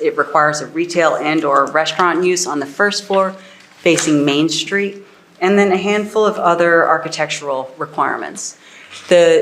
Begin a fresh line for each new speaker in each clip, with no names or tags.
It requires a retail and/or restaurant use on the first floor facing Main Street, and then a handful of other architectural requirements. The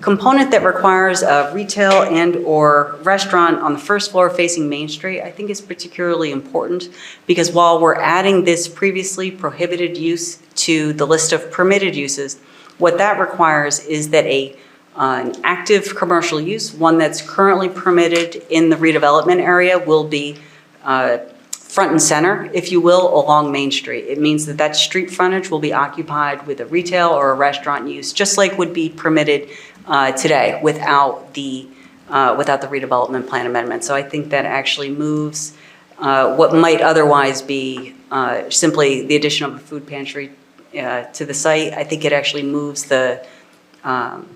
component that requires a retail and/or restaurant on the first floor facing Main Street, I think is particularly important because while we're adding this previously prohibited use to the list of permitted uses, what that requires is that a, uh, an active commercial use, one that's currently permitted in the redevelopment area, will be uh, front and center, if you will, along Main Street. It means that that street frontage will be occupied with a retail or a restaurant use, just like would be permitted uh, today without the, uh, without the redevelopment plan amendment. So I think that actually moves uh, what might otherwise be uh, simply the addition of a food pantry uh, to the site. I think it actually moves the, um,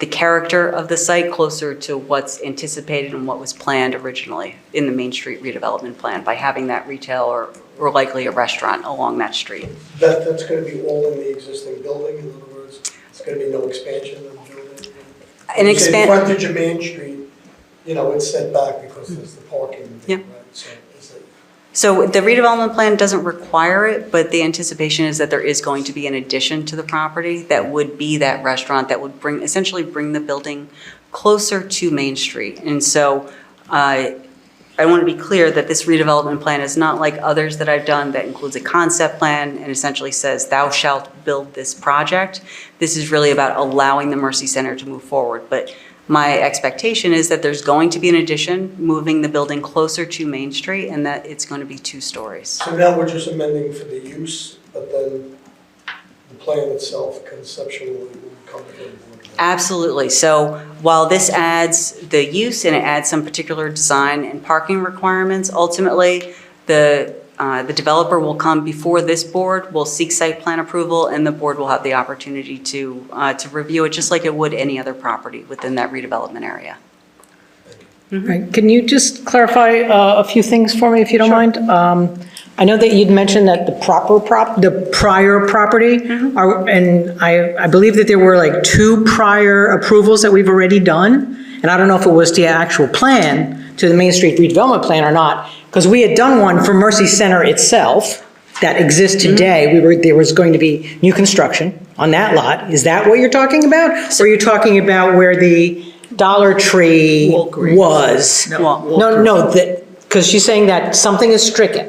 the character of the site closer to what's anticipated and what was planned originally in the Main Street redevelopment plan by having that retail or, or likely a restaurant along that street.
That, that's gonna be all in the existing building, in other words, it's gonna be no expansion of the building?
And
You say
expand,
Frontage of Main Street, you know, it's set back because there's the parking
Yeah.
there, right? So is it,
so the redevelopment plan doesn't require it, but the anticipation is that there is going to be an addition to the property that would be that restaurant that would bring, essentially bring the building closer to Main Street. And so uh, I want to be clear that this redevelopment plan is not like others that I've done that includes a concept plan and essentially says, thou shalt build this project. This is really about allowing the Mercy Center to move forward. But my expectation is that there's going to be an addition, moving the building closer to Main Street, and that it's going to be two stories.
so now we're just amending for the use, but then the plan itself conceptually will come to the board.
Absolutely. So while this adds the use and it adds some particular design and parking requirements, ultimately, the, uh, the developer will come before this board, will seek site plan approval, and the board will have the opportunity to, uh, to review it, just like it would any other property within that redevelopment area.
Right. Can you just clarify uh, a few things for me, if you don't mind? Um, I know that you'd mentioned that the proper prop, the prior property, are- and I, I believe that there were like two prior approvals that we've already done, and I don't know if it was the actual plan, to the Main Street redevelopment plan or not, because we had done one for Mercy Center itself that exists today. We were, there was going to be new construction on that lot. Is that what you're talking about? Or are you talking about where the Dollar Tree
Walgreens.
was?
No,
No, no, because she's saying that something is stricken.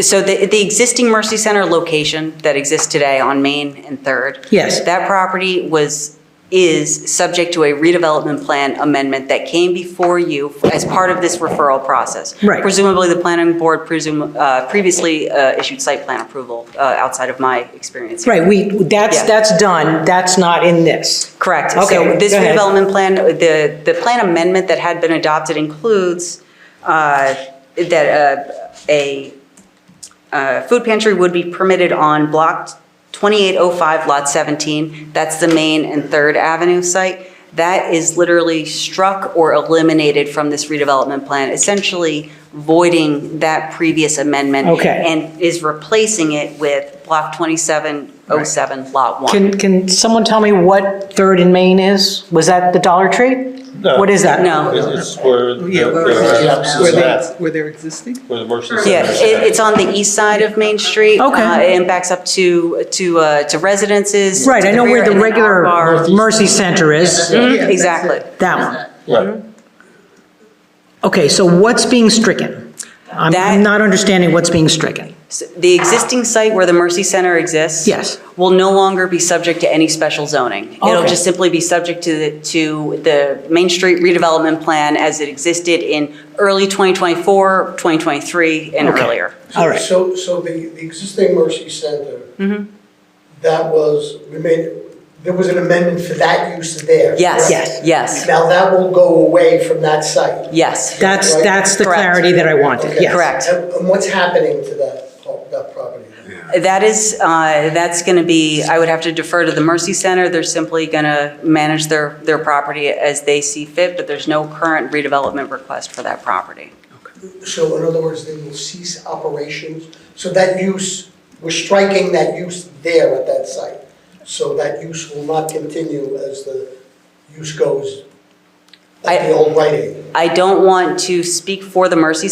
So the, the existing Mercy Center location that exists today on Main and Third.
Yes.
That property was, is subject to a redevelopment plan amendment that came before you as part of this referral process.
Right.
Presumably, the planning board presume, uh, previously uh, issued site plan approval, uh, outside of my experience.
Right, we, that's,
Yeah.
that's done, that's not in this.
Correct.
Okay,
So this
go ahead.
redevelopment plan, the, the plan amendment that had been adopted includes uh, that uh, a uh, food pantry would be permitted on Block 2805, Lot 17. That's the Main and Third Avenue site. That is literally struck or eliminated from this redevelopment plan, essentially voiding that previous amendment.
Okay.
And is replacing it with Block 2707, Lot 1.
Can, can someone tell me what Third and Main is? Was that the Dollar Tree?
No.
What is that?
No.
It's it's where the-
Yeah,
where
where where
the
they, where they're existing?
where the Mercy
Yeah,
Center is.
it, it's on the east side of Main Street.
Okay.
Uh, And backs up to, to, uh, to residences.
Right,
to
I know where
rear,
the
and then
regular Mm-hmm.
our bar.
Mercy Center is,
Yeah, that's it.
Exactly.
that one.
Right.
Okay, so what's being stricken? I'm,
That-
I'm not understanding what's being stricken.
So The existing site where the Mercy Center exists.
Yes.
Will no longer be subject to any special zoning. It'll
Okay.
just simply be subject to, the to the Main Street redevelopment plan as it existed in early 2024, 2023, and
Okay.
earlier.
All right.
So, so the, the existing Mercy Center, that was, we made, there was an amendment for that use there.
Yes,
correct?
Yes.
yes,
Now that will go away from that site.
yes.
That's, that's the
Correct.
clarity that I wanted,
Okay.
yes.
Correct.
And and what's happening to that, pro- that property?
That is, uh, that's going to be, I would have to defer to the Mercy Center. They're simply going to manage their, their property as they see fit, but there's no current redevelopment request for that property.
So in other words, they will cease operations, so that use, we're striking that use there at that site. So that use will not continue as the use goes at
I-
the old Rite Aid.
I don't want to speak for the Mercy